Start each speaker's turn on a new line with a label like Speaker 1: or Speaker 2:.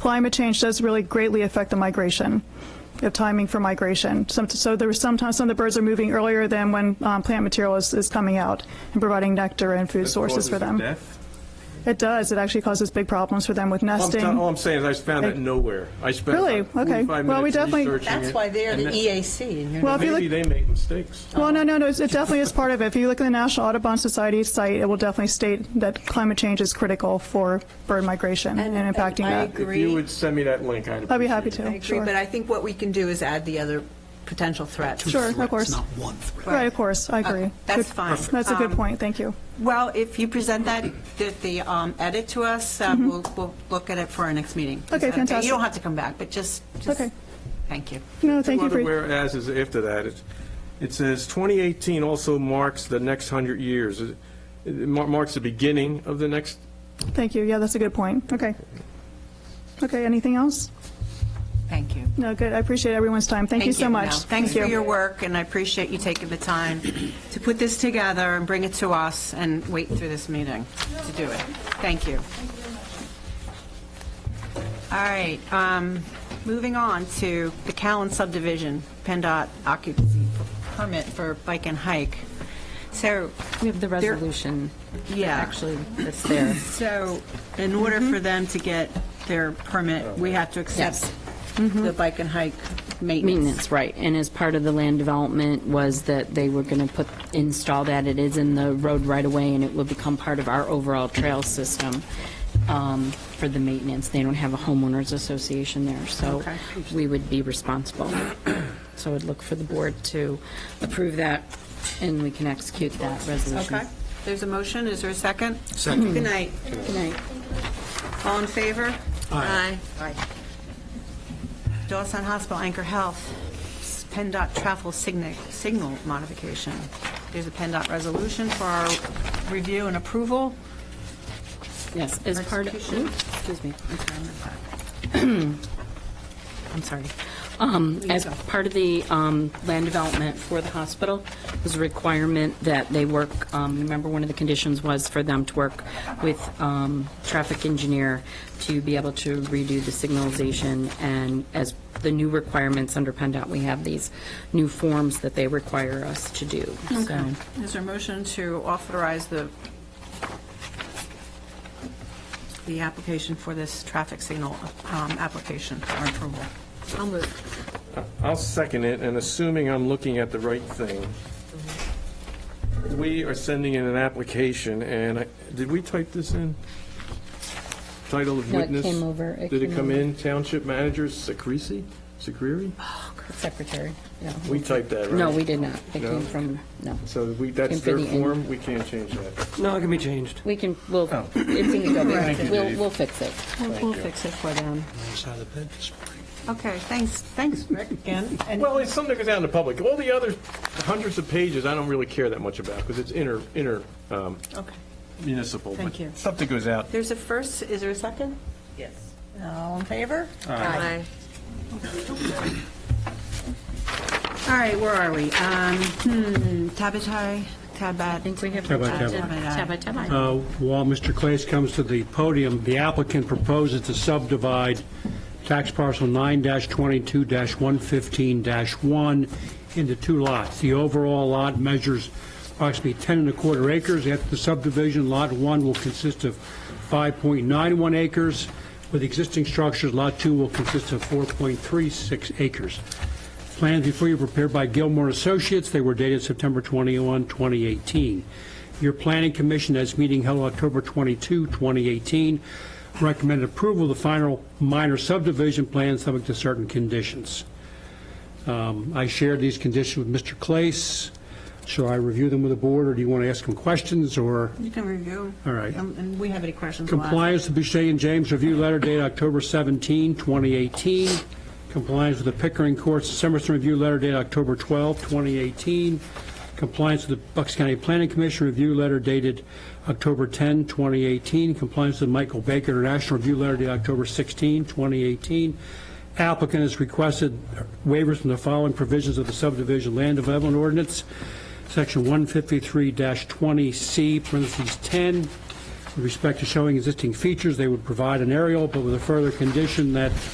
Speaker 1: climate change does really greatly affect the migration, the timing for migration. Some- So there was sometimes some of the birds are moving earlier than when um, plant material is, is coming out and providing nectar and food sources for them. It does. It actually causes big problems for them with
Speaker 2: I'm
Speaker 1: nesting.
Speaker 2: t- All I'm saying is I found that nowhere. I spent
Speaker 1: Really?
Speaker 2: about
Speaker 1: Okay.
Speaker 2: 45
Speaker 1: Well, we
Speaker 2: minutes
Speaker 1: definitely-
Speaker 2: researching
Speaker 3: That's
Speaker 2: it,
Speaker 3: why they're
Speaker 2: and
Speaker 3: the
Speaker 2: that-
Speaker 3: EAC, and you're
Speaker 1: Well,
Speaker 3: not.
Speaker 1: if you
Speaker 2: Maybe
Speaker 1: look,
Speaker 2: they make mistakes.
Speaker 1: well, no, no, no, it's- it definitely is part of it. If you look at the National Audubon Society site, it will definitely state that climate change is critical for bird migration
Speaker 3: And-
Speaker 1: and impacting
Speaker 3: and I
Speaker 1: that.
Speaker 3: agree.
Speaker 2: If you would send me that link, I'd appreciate it.
Speaker 1: I'd be happy to,
Speaker 3: I agree,
Speaker 1: sure.
Speaker 3: but I think what we can do is add the other potential threats.
Speaker 1: Sure, of
Speaker 4: threats,
Speaker 1: course.
Speaker 4: Not one threat.
Speaker 1: Right, of course, I agree.
Speaker 3: Okay, Uh, That's
Speaker 1: Good-
Speaker 3: fine.
Speaker 1: That's a good
Speaker 3: Um,
Speaker 1: point, thank you.
Speaker 3: Well, if you present that, the- the um, edit to us, uh, we'll, we'll look at it for our next meeting. Is
Speaker 1: Mm-hmm. Okay,
Speaker 3: that
Speaker 1: fantastic.
Speaker 3: You don't have to come back, but just, just,
Speaker 1: Okay.
Speaker 3: thank you.
Speaker 1: No, thank you
Speaker 2: Two
Speaker 1: for,
Speaker 2: other whereases after that. It's- It says, "2018 also marks the next 100 years." It it mar- marks the beginning of the next,
Speaker 1: thank you, yeah, that's a good point, okay. Okay, anything else?
Speaker 3: Thank you.
Speaker 1: No, good, I appreciate everyone's time, thank you so much.
Speaker 3: No, Thanks for your work, and I appreciate you taking the time to put this together and bring it to us and wait through this meeting to do it. Thank you. All right, um, moving on to the Callan subdivision, PennDOT occupancy permit for bike and hike. So,
Speaker 5: We have the
Speaker 3: There-
Speaker 5: resolution,
Speaker 3: Yeah.
Speaker 5: actually, that's there.
Speaker 3: so in order
Speaker 1: Mm-hmm.
Speaker 3: for them to get their permit, we have to accept the bike and hike maintenance.
Speaker 5: Maintenance, right, and as part of the land development was that they were going to put, install that, it is in the road right away, and it will become part of our overall trail system um, for the maintenance. They don't have a homeowners association there, so
Speaker 3: Okay.
Speaker 5: we would be responsible. So I'd look for the board to approve that, and we can execute that resolution.
Speaker 3: Okay, there's a motion, is there a second? Second. Good night.
Speaker 5: Good night.
Speaker 3: All in favor? Aye. Aye. Dawson Hospital Anchor Health, PennDOT travel signa- signal modification. There's a PennDOT resolution for our review and approval.
Speaker 5: Yes, as part of,
Speaker 3: Execution.
Speaker 5: oops, excuse me. I'm sorry. Um, As part of the um, land development for the hospital, was a requirement that they work, um, remember, one of the conditions was for them to work with um, traffic engineer to be able to redo the signalization, and as the new requirements under PennDOT, we have these new forms that they require us to do, so.
Speaker 3: Is there a motion to authorize the, the application for this traffic signal um, application for approval? I'll move.
Speaker 2: I'll second it, and assuming I'm looking at the right thing, we are sending in an application, and I- did we type this in? Title of
Speaker 5: No, it
Speaker 2: witness?
Speaker 5: came over, it
Speaker 2: Did it
Speaker 5: came
Speaker 2: come
Speaker 5: over.
Speaker 2: in? Township Manager Sacresi? Sacreri?
Speaker 5: Secretary, no.
Speaker 2: We typed that, right?
Speaker 5: No, we did not. It
Speaker 2: No?
Speaker 5: came from, no.
Speaker 2: So we, that's
Speaker 5: Came for
Speaker 2: their
Speaker 5: the end.
Speaker 2: form, we can't change that.
Speaker 6: No, it can be changed.
Speaker 5: We can, we'll, if we can go back, we'll, we'll fix it.
Speaker 3: We'll fix it for them. Okay, thanks, thanks, Rick, again. And
Speaker 2: Well, it's something that goes out in the public. All the other hundreds of pages, I don't really care that much about, because it's inter, inter um,
Speaker 3: Okay.
Speaker 2: municipal. but
Speaker 3: Thank you.
Speaker 2: Stuff that goes out.
Speaker 3: There's a first, is there a second? Yes. All in favor? Aye. All right, where are we? Um, hmm, Tabatabai, Tabat. I think
Speaker 5: we have-
Speaker 3: Tabat.
Speaker 7: Uh, While Mr. Clace comes to the podium, the applicant proposes to subdivide tax parcel 9-22-115-1 into two lots. The overall lot measures approximately 10 and a quarter acres. After the subdivision, Lot 1 will consist of 5.91 acres. With existing structures, Lot 2 will consist of 4.36 acres. Plans before you prepared by Gilmore Associates. They were dated September 21, 2018. Your Planning Commission, as meeting held October 22, 2018, recommended approval of the final minor subdivision plan subject to certain conditions. Um, I shared these conditions with Mr. Clace. Shall I review them with the board, or do you want to ask him questions, or?
Speaker 3: You can review.
Speaker 7: All right.
Speaker 3: Um, And we have any questions? we'll ask.
Speaker 7: Compliance with Boucher and James Review Letter dated October 17, 2018. Compliance with the Pickering Courts Summerson Review Letter dated October 12, 2018. Compliance with the Bucks County Planning Commission Review Letter dated October 10, 2018. Compliance with the Michael Baker International Review Letter dated October 16, 2018. Applicant has requested waivers from the following provisions of the subdivision land development ordinance, section 153-20C, parentheses 10, With respect to showing existing features, they would provide an aerial, but with a further condition that